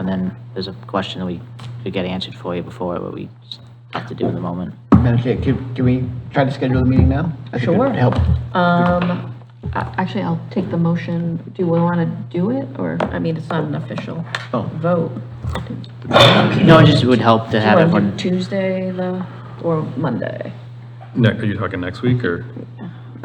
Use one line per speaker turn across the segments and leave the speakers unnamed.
And then there's a question that we could get answered for you before, but we just have to do in the moment.
Madam Chair, can, can we try to schedule the meeting now? I think it
Sure.
would Help.
Um, a- actually, I'll take the motion. Do we want to do it, or, I mean, it's not an official
Oh.
vote.
No, it just would help to
Do you
have
want to do
everyone,
Tuesday, the, or Monday?
Ne- Are you talking next week or? We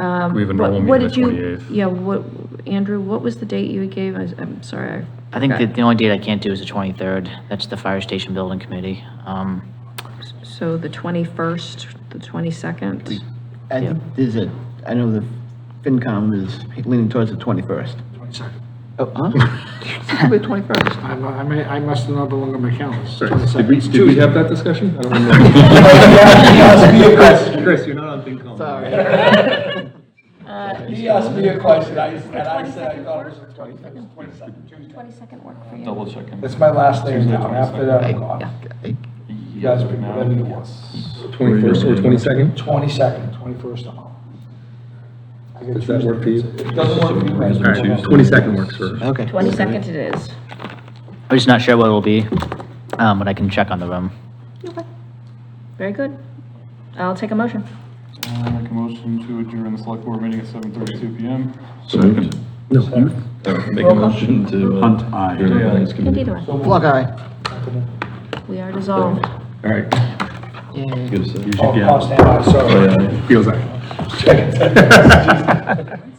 have a normal
Um, What- what
meeting the
did you-
28th.
Yeah, what, Andrew, what was the date you gave? I was- I'm sorry.
I think that
forgot.
the only date I can't do is the 23rd. That's the Fire Station Building Committee. Um,
So the 21st, the 22nd?
I think there's a, I know the FinCom is leaning towards the 21st.
Twenty-second.
Oh, huh? The 21st.
I, I may, I must have not belonged on my calendar. It's
Did
22nd.
we, did we have that discussion? I don't remember.
He asked me a question.
Chris, you're not on FinCom.
He asked me a question, I, and I said, I thought it was the twenty-second, twenty-second, Tuesday.
Twenty-second work for you?
Double checking.
That's my last name now, and after that, I'm gone. You guys pick whatever you want.
Twenty-first or twenty-second?
Twenty-second, twenty-first, I'm out. I get
Does that work for you?
Tuesday. It doesn't work for you guys.
Twenty-second works for.
Okay.
22nd it is.
I'm just not sure what it'll be, um, but I can check on the room.
Very good. I'll take a motion.
I make a motion to adjourn the select board meeting at seven thirty-two PM.
Second. No, you. Make a motion to. uh, Hunt, aye.
Indeed, aye.
Block eye.
we are dissolved.
All right. Good.
Oh, I'll stand out, sorry.
Feels like.
Second.